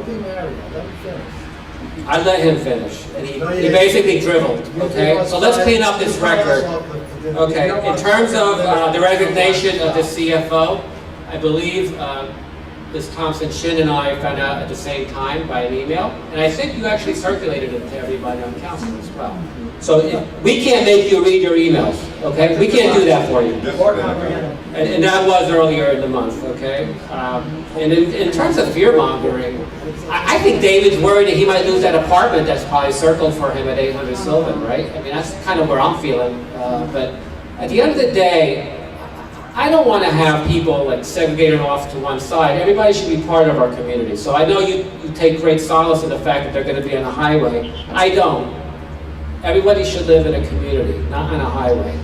be married, let me finish. I let him finish, and he, No, you he didn't. basically dribbled, You okay? did So let's what- clean up this you did record. what- you did- Okay, you know in what- terms of uh, the resignation of the CFO, I believe uh, Ms. Thompson Shin and I found out at the same time by an email, and I think you actually circulated it to everybody on council as well. So if- we can't make you read your emails, okay? We can't do that for you. This Or has been a- comprehend. And, and that was earlier in the month, okay? Um, and in, in terms of fear mongering, I, I think David's worried that he might lose that apartment that's probably circled for him at 800 Sylvan, right? I mean, that's kind of where I'm feeling. Uh, but at the end of the day, I don't want to have people like segregated off to one side. Everybody should be part of our community. So I know you, you take great solace in the fact that they're going to be on a highway. I don't. Everybody should live in a community, not on a highway.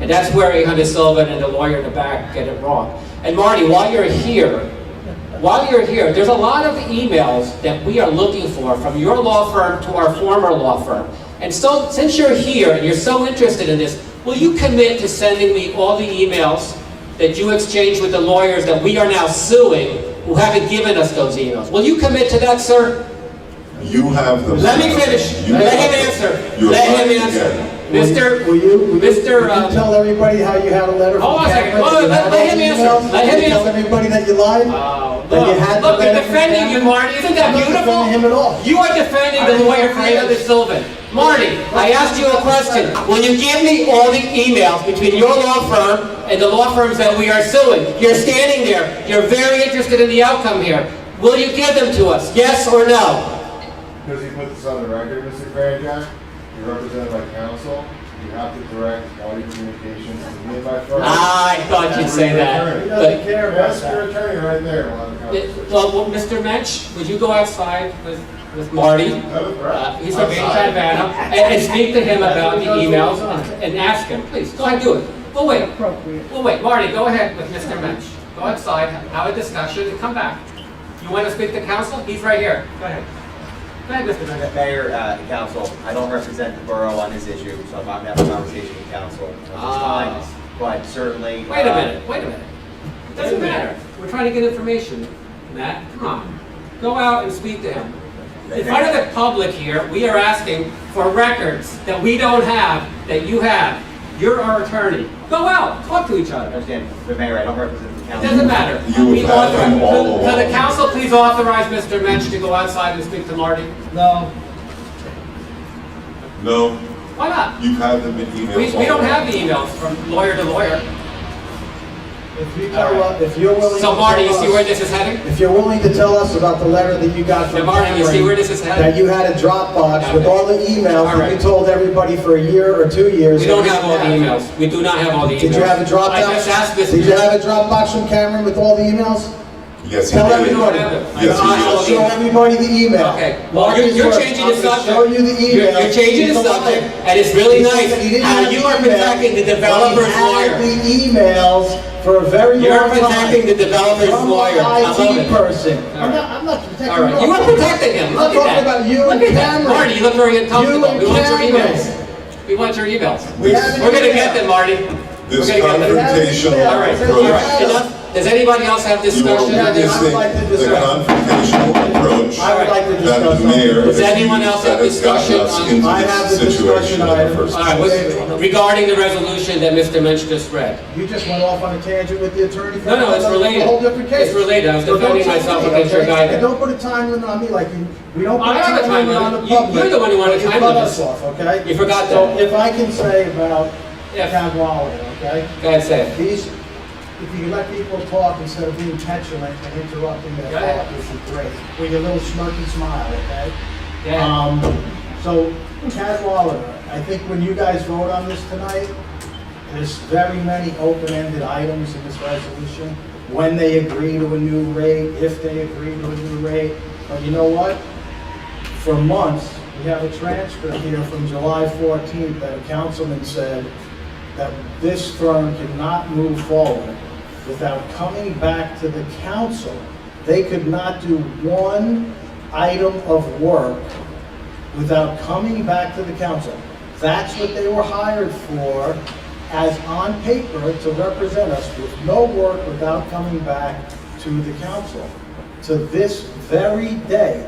And that's where 800 Sullivan and the lawyer in the back get it wrong. And Marty, while you're here, while you're here, there's a lot of emails that we are looking for from your law firm to our former law firm. And so, since you're here and you're so interested in this, will you commit to sending me all the emails that you exchanged with the lawyers that we are now suing who haven't given us those emails? Will you commit to that, sir? You have the. Let me finish. You Let have- him answer. You're Let him right answer. again. Mr. Will you, will you- Mr., will uh, you tell everybody how you had a letter Hold from on a second. Cameron? Hold on, You let- had let all him the answer. emails? Let him You tell answer. everybody that you lied? Oh, That you look, had look, the they're letter from defending you, Cameron? Marty. Isn't that I'm not beautiful? defending him at all. You are defending I the didn't lawyer for defend Heather him. Sylvan. Marty, I asked you a question. Will you give me all the emails between your law firm and the law firms that we are suing? You're standing there. You're very interested in the outcome here. Will you give them to us? Yes or no? Because you put this on the record, Mr. Grandjack, you're represented by counsel, you have to direct all your communications to me by Friday. I thought you'd say that. He But- doesn't care about Ask your that. attorney right there, we'll have a Yeah, conversation. Well, well, Mr. Mensch, would you go outside with, with Marty? No Uh, threat. He's a big Outside. Havana, and, and speak to him about the emails and- and ask him, please, go ahead, do it. We'll wait, we'll wait. Marty, go ahead with Mr. Mensch. Go outside, have a discussion, and come back. You want to speak to council? He's right here. Go ahead. Go ahead, Mr. Mensch. President, Mayor, uh, and council, I don't represent the borough on this issue, so I'm not having a conversation with council at this Ah. time. But certainly. Wait a uh, minute, wait a minute. It doesn't matter. We're trying to get information. Matt, come on. Go out and speak to him. In front of the public here, we are asking for records that we don't have, that you have. You're our attorney. Go out, talk to each I other. Understand, but Mayor, I don't represent the It council. doesn't matter. You We have had them all authorize- Can the along. council please authorize Mr. Mensch to go outside and speak to Marty? No, No, Why not? you have them in emails. We, we don't already. have the emails from lawyer to lawyer. if you tell us, if you're willing to So Marty, you see tell where us, this is heading? if you're willing to tell us about the letter that you got Now, from Marty, you see Cameron, where this is heading? that you had a Dropbox with all the emails that you Alright. told everybody for a year or two years. We that don't you have all the had. emails. We do not have all the emails. Did you have a Dropbox? I just asked this. Did you have a Dropbox from Cameron with all the emails? Yes, he Tell We did. don't everybody. have them. I Yes, asked he all I'll the show emails. everybody the email. Okay, well, you're, Marcus you're Burke, changing the I'm gonna subject. Show you the You're- email. You're changing the He's lying. subject, and it's really He nice said he didn't how have you the are email, protecting but the he developer's had lawyer. the emails for a very long You're time. protecting the developer's I'm lawyer. I an love IT it. person. All I'm right. not, I'm not protecting. All right, you are protecting him. I'm Look at talking that. about you and Look at that. Cameron. Marty, you look very uncomfortable. and We want your Cameron. emails. We want your emails. We have an We're gonna email. get them, Marty. We're This gonna get them. confrontational All right, This all approach, right, enough. Does anybody else have you are discussion? on this? witnessing like to the discuss. confrontational approach I would like to that discuss the something. mayor Does has anyone used else have that has gotten discussion us on- into I have the this situation discussion in the item. first All right, place. what- regarding the resolution that Mr. Mensch just read. You just went off on a tangent with the attorney. for No, no, it's another- related. A whole different case. It's related. I was So don't defending tell myself me, against your okay? guidance. And don't put a time limit on me like you, we don't put I a have a time time limit on the limit. You- public. you're the one who wanted but you time cut limits. us off, okay? You forgot So that. if I can say about Yes. Cadwalader, okay? Go ahead, say it. These, if you let people talk instead of being petulant and interrupting their Go ahead. thought, this is great. With your little smirky smile, okay? Yeah. Um, so Cadwalader, I think when you guys vote on this tonight, there's very many open-ended items in this resolution. When they agree to a new rate, if they agree to a new rate, but you know what? For months, we have a transcript here from July fourteenth that a councilman said that this firm cannot move forward without coming back to the council. They could not do one item of work without coming back to the council. That's what they were hired for, as on paper, to represent us with no work without coming back to the council. To this very day,